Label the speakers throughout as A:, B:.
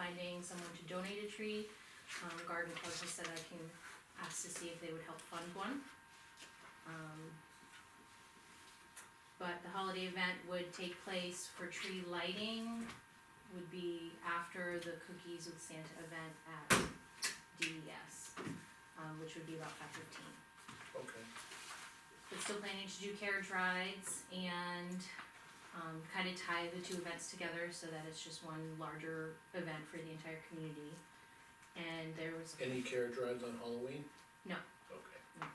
A: finding someone to donate a tree. Um, Garden Club has said I can ask to see if they would help fund one. Um, But the holiday event would take place for tree lighting, would be after the Cookies with Santa event at DES, um, which would be about five fifteen.
B: okay.
A: But still planning to do carriage rides and um, kind of tie the two events together so that it's just one larger event for the entire community. And there was,
B: Any carriage rides on Halloween?
A: No.
B: Okay,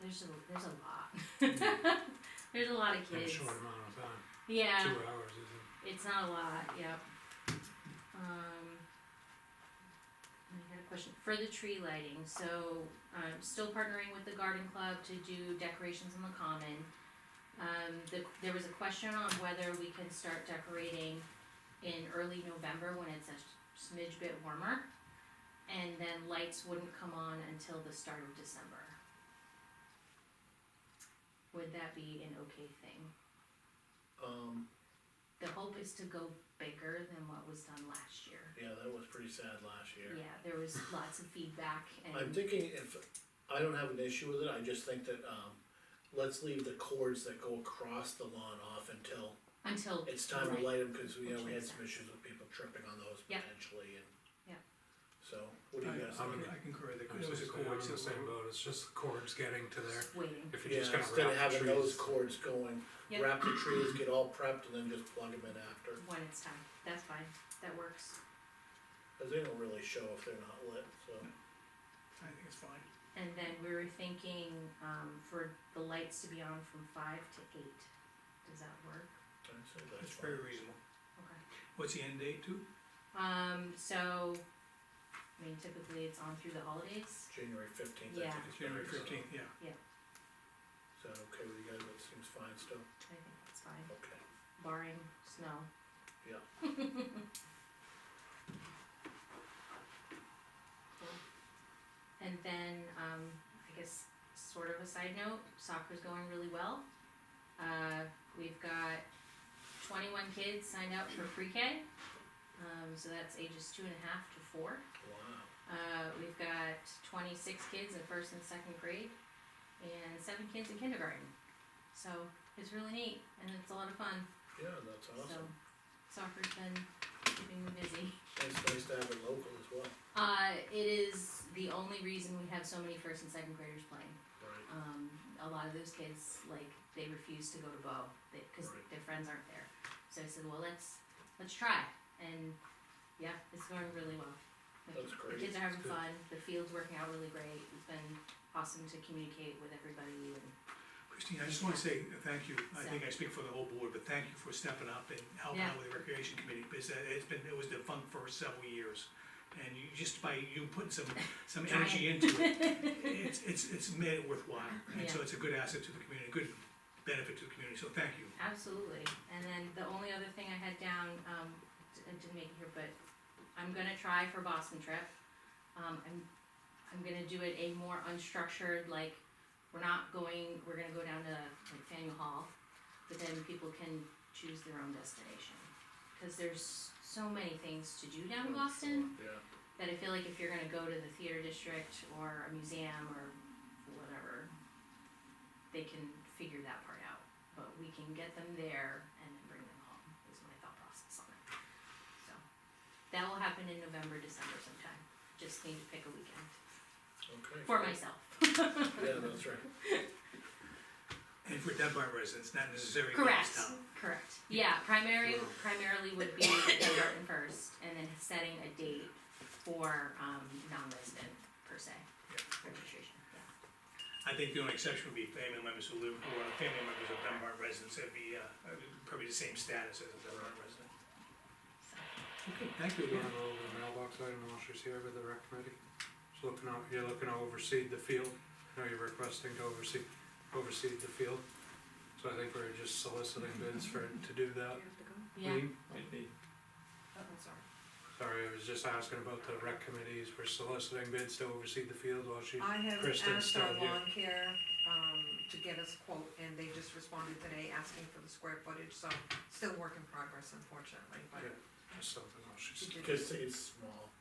A: there's a, there's a lot. There's a lot of
C: in a
A: kids.
C: short amount of time,
A: Yeah.
C: two hours isn't.
A: It's not a lot, yep. Um, I got a question, for the tree lighting, so I'm still partnering with the garden club to do decorations on the common. Um, the, there was a question on whether we can start decorating in early November when it's a smidge bit warmer. And then lights wouldn't come on until the start of December. Would that be an okay thing?
B: um,
A: The hope is to go bigger than what was done last year.
B: yeah, that was pretty sad last year.
A: Yeah, there was lots of feedback
B: I'm
A: and,
B: thinking if, I don't have an issue with it, I just think that, um, let's leave the cords that go across the lawn off until
A: until,
B: it's time to
A: Right.
B: light them, cause we, you know, we had
A: Which makes
B: some issues with people tripping on those
A: Yeah.
B: potentially and.
A: Yeah.
B: So, what do you guys
C: I- I'm
B: think?
C: in-
D: I concur that
C: I was
D: there was a
C: just saying, I'm
D: cord
C: in the same boat, it's just the cords getting to there,
A: just waiting,
C: if you're
B: Yeah,
C: just gonna
B: instead of
C: wrap the
B: having those
C: trees.
B: cords going,
A: Yeah.
B: wrap the trees, get all prepped and then just plug them in after,
A: when it's time. That's fine, that works.
B: cause they don't really show if they're not lit, so.
D: I think it's fine.
A: And then we were thinking, um, for the lights to be on from five to eight. Does that work?
B: I'd say that's
D: It's very
B: fine.
D: reasonable.
A: Okay.
D: What's the end date too?
A: Um, so, I mean, typically it's on through the holidays.
B: January fifteenth, I
A: Yeah.
B: think. it's
D: January
B: better, so-
D: fifteenth, yeah.
B: Is that okay with you guys, that seems fine still,
A: I think that's fine,
B: okay,
A: barring snow.
B: Yeah.
A: Cool. And then, um, I guess, sort of a side note, soccer's going really well. Uh, we've got twenty-one kids signed up for pre-K, um, so that's ages two and a half to four.
B: wow,
A: Uh, we've got twenty-six kids in first and second grade, and seven kids in kindergarten. So it's really neat, and it's a lot of fun,
B: yeah, that's
A: so
B: awesome,
A: soccer's been keeping me busy.
B: it's nice to have it local as well,
A: Uh, it is the only reason we have so many first and second graders playing.
B: right,
A: Um, a lot of those kids, like, they refuse to go to Bo, they, cause
B: Right.
A: their friends aren't there. So I said, well, let's, let's try, and, yeah, it's going really well. The
B: That's
A: ki-
B: great.
A: The kids are having
C: Good.
A: fun, the field's working out really great, it's been awesome to communicate with everybody and,
D: Christine, I just wanna say thank you, I think I speak for the whole board, but thank you for stepping up and helping out
A: Yeah.
D: with the recreation committee, because that- it's been, it was defunct for several years. And you, just by you putting some, some
A: Trying.
D: energy into it, it's, it's, it's made it worthwhile. And so it's a good asset to the community, a good benefit to the community, so thank you.
A: Absolutely, and then the only other thing I had down, um, d- I didn't make it here, but I'm gonna try for Boston trip. Um, I'm, I'm gonna do it a more unstructured, like, we're not going, we're gonna go down to like Faneuil Hall, but then people can choose their own destination. Cause there's so many things to do down in Boston,
B: yeah,
A: that I feel like if you're gonna go to the theater district or a museum or whatever, they can figure that part out. But we can get them there and then bring them home, is my thought process on it. So, that will happen in November, December sometime, just need to pick a weekend,
B: okay.
A: for myself.
B: Yeah, that's right,
D: And for Dunbar residents, not necessarily
A: Correct,
D: Goffstown.
A: correct, yeah, primary,
C: Yeah.
A: primarily would be Dunbarton first, and then setting a date for, um, non-resident per se, registration, yeah.
D: I think the only exception would be family members who live, who are family members of Dunbar residents, that'd be, uh, uh, probably the same status as a Dunbar resident. Okay, thank you
C: You
D: again.
C: wanna go over the mailbox item while she's here with the rec committee? She's looking out, you're looking to oversee the field, I know you're requesting to oversee, oversee the field. So I think we're just soliciting bids for, to do that.
A: Yeah.
C: Lean?
A: Oh, sorry.
C: Sorry, I was just asking about the rec committees, we're soliciting bids to oversee the field while she,
E: Oh,
A: Uh,
E: I have
C: Kristen's
E: asked our
C: still here.
E: lawn care, um, to get us quote, and they just responded today asking for the square footage, so still work in progress unfortunately, but
C: Okay. or something else, she's.
E: She did.
B: Cause it's small.